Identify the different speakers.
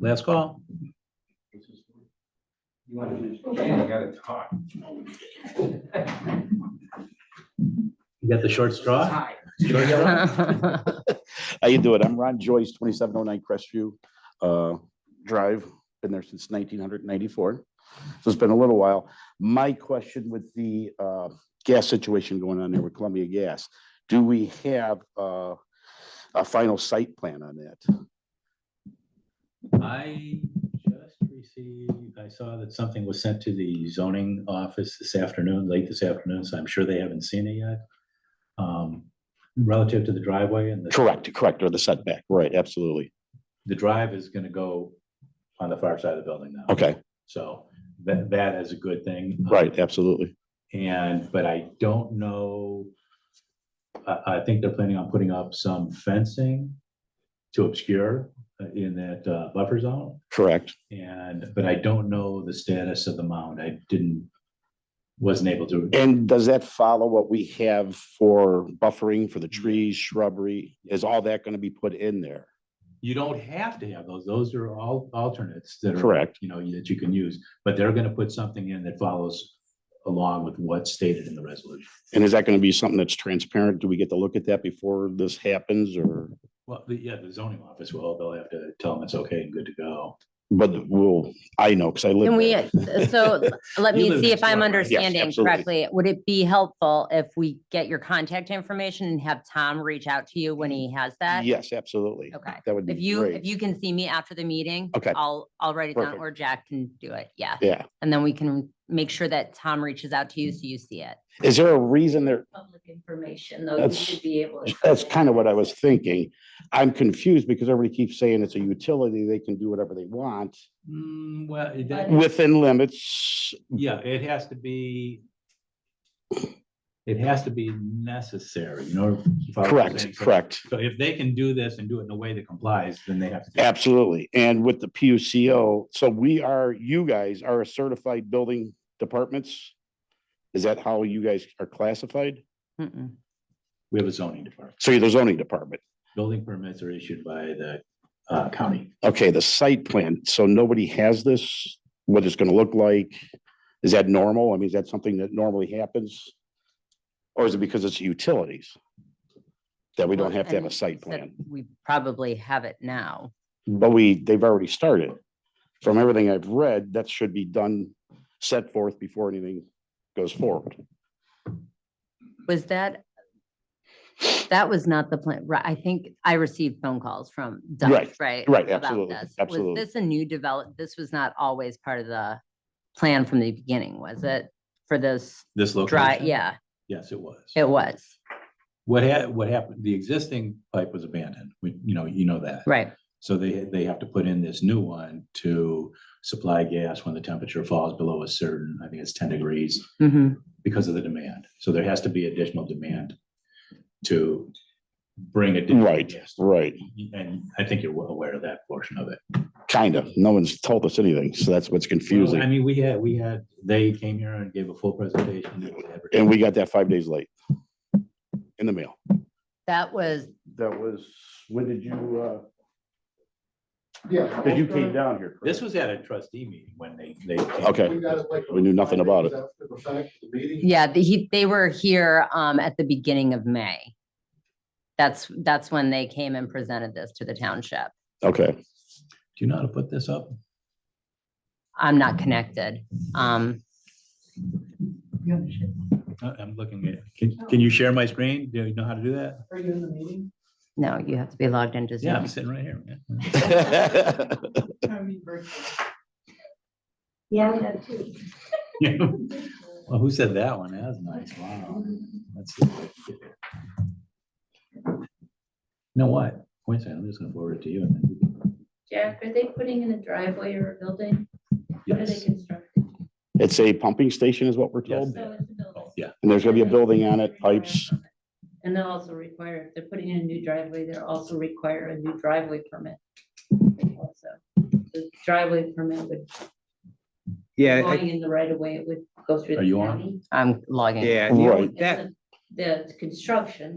Speaker 1: Last call.
Speaker 2: You want to, you gotta talk.
Speaker 1: You got the short straw? Short straw?
Speaker 3: How you doing? I'm Ron Joyce, twenty-seven oh nine Crestview uh, Drive. Been there since nineteen hundred ninety-four. So it's been a little while. My question with the uh, gas situation going on there with Columbia Gas, do we have uh, a final site plan on that?
Speaker 1: I just received, I saw that something was sent to the zoning office this afternoon, late this afternoon, so I'm sure they haven't seen it yet. Um, Relative to the driveway and the,
Speaker 3: Correct, correct, or the setback, right, absolutely.
Speaker 1: the drive is gonna go on the far side of the building now.
Speaker 3: Okay,
Speaker 1: So that, that is a good thing.
Speaker 3: right, absolutely.
Speaker 1: And, but I don't know. I, I think they're planning on putting up some fencing to obscure uh, in that uh, buffer zone.
Speaker 3: Correct,
Speaker 1: And, but I don't know the status of the mound. I didn't, wasn't able to.
Speaker 3: And does that follow what we have for buffering for the trees, shrubbery? Is all that going to be put in there?
Speaker 1: You don't have to have those. Those are all alternates that are,
Speaker 3: Correct.
Speaker 1: you know, that you can use. But they're gonna put something in that follows along with what's stated in the resolution.
Speaker 3: And is that going to be something that's transparent? Do we get to look at that before this happens or?
Speaker 1: Well, the- yeah, the zoning office will, they'll have to tell them it's okay and good to go.
Speaker 3: But we'll, I know because I live.
Speaker 4: Can we, uh,
Speaker 3: there.
Speaker 4: so let
Speaker 1: You
Speaker 4: me
Speaker 1: live
Speaker 4: see
Speaker 1: next
Speaker 4: if I'm
Speaker 1: door, right? Yes,
Speaker 4: understanding
Speaker 3: absolutely.
Speaker 4: correctly. Would it be helpful if we get your contact information and have Tom reach out to you when he has that?
Speaker 3: Yes, absolutely.
Speaker 4: Okay.
Speaker 3: That would
Speaker 4: If
Speaker 3: be
Speaker 4: you, if
Speaker 3: great.
Speaker 4: you can see me after the meeting.
Speaker 3: Okay.
Speaker 4: I'll, I'll write it down
Speaker 3: Perfect.
Speaker 4: or Jack can do it. Yeah.
Speaker 3: Yeah.
Speaker 4: And then we can make sure that Tom reaches out to you so you see it.
Speaker 3: Is there a reason there?
Speaker 5: public information, though, you
Speaker 3: That's-
Speaker 5: should be able to.
Speaker 3: That's kind of what I was thinking. I'm confused because everybody keeps saying it's a utility. They can do whatever they want
Speaker 1: Hmm, well, it- that-
Speaker 3: within limits.
Speaker 1: Yeah, it has to be. It has to be necessary, you know. if I was saying,
Speaker 3: Correct,
Speaker 1: so-
Speaker 3: correct.
Speaker 1: So if they can do this and do it in a way that complies, then they have to. do it.
Speaker 3: Absolutely. And with the PUCO, so we are, you guys are a certified building departments? Is that how you guys are classified?
Speaker 4: Mm-mm.
Speaker 1: We have a zoning department.
Speaker 3: So you're the zoning department.
Speaker 1: Building permits are issued by the uh, county.
Speaker 3: Okay, the site plan. So nobody has this, what it's gonna look like? Is that normal? I mean, is that something that normally happens? Or is it because it's utilities? That we don't
Speaker 4: Well,
Speaker 3: have to have a
Speaker 4: and
Speaker 3: site
Speaker 4: so
Speaker 3: plan?
Speaker 4: We probably have it now.
Speaker 3: But we, they've already started. From everything I've read, that should be done, set forth before anything goes forward.
Speaker 4: Was that, that was not the plan, right? I think I received phone calls from Doug,
Speaker 3: Right,
Speaker 4: right?
Speaker 3: right,
Speaker 4: about
Speaker 3: absolutely,
Speaker 4: this.
Speaker 3: absolutely.
Speaker 4: Was this a new develop, this was not always part of the plan from the beginning, was it? For this
Speaker 1: This
Speaker 4: dry,
Speaker 1: location.
Speaker 4: yeah,
Speaker 1: Yes, it was.
Speaker 4: it was,
Speaker 1: What had, what happened, the existing pipe was abandoned. We, you know, you know that.
Speaker 4: right.
Speaker 1: So they, they have to put in this new one to supply gas when the temperature falls below a certain, I think it's ten degrees.
Speaker 4: Mhm.
Speaker 1: because of the demand. So there has to be additional demand to bring it.
Speaker 3: Right, right.
Speaker 1: And I think you're well aware of that portion of it.
Speaker 3: Kind of. No one's told us anything, so that's what's
Speaker 1: Well, I
Speaker 3: confusing.
Speaker 1: mean, we had, we had, they came here and gave a full presentation. It was advertised.
Speaker 3: And we got that five days late in the mail.
Speaker 4: That was,
Speaker 3: That was, when did you, uh?
Speaker 6: Yeah.
Speaker 3: Because you came down here.
Speaker 1: This was at a trustee meeting when they, they. came.
Speaker 3: Okay.
Speaker 6: We got it like
Speaker 3: We knew nothing about it.
Speaker 6: five days after the fact of the meeting.
Speaker 4: yeah, the- he, they were here um at the beginning of May. That's, that's when they came and presented this to the township.
Speaker 3: Okay,
Speaker 1: Do you know how to put this up?
Speaker 4: I'm not connected. Um,
Speaker 1: I- Uh, I'm looking at, can, can you share my screen? Do you know how to do that?
Speaker 6: Are you in the meeting?
Speaker 4: no, you have to be logged into
Speaker 1: Yeah,
Speaker 4: Zoom.
Speaker 1: I'm sitting right here. man.
Speaker 6: I mean, very-
Speaker 5: Yeah, I have two.
Speaker 1: Well, who said that one? That was nice. Wow. That's. good. You Know what? Wait a second, I'm just gonna forward it to you. and then you can-
Speaker 5: Jack, are they putting in a driveway or a building? What are they
Speaker 1: Yes.
Speaker 5: constructing?
Speaker 3: it's a pumping station is what we're told,
Speaker 1: Yes.
Speaker 5: So it's a building.
Speaker 1: Oh, Yeah,
Speaker 3: and there's gonna be a building on it, pipes.
Speaker 5: And they'll also require, if they're putting in a new driveway, they'll also require a new driveway permit. Also, the driveway permit would,
Speaker 7: Yeah, I-
Speaker 5: going in the right of way, it would go through
Speaker 1: Are
Speaker 5: the
Speaker 1: you on?
Speaker 5: county.
Speaker 4: I'm logging.
Speaker 7: yeah, you know,
Speaker 3: Right.
Speaker 5: And
Speaker 7: that,
Speaker 5: The the construction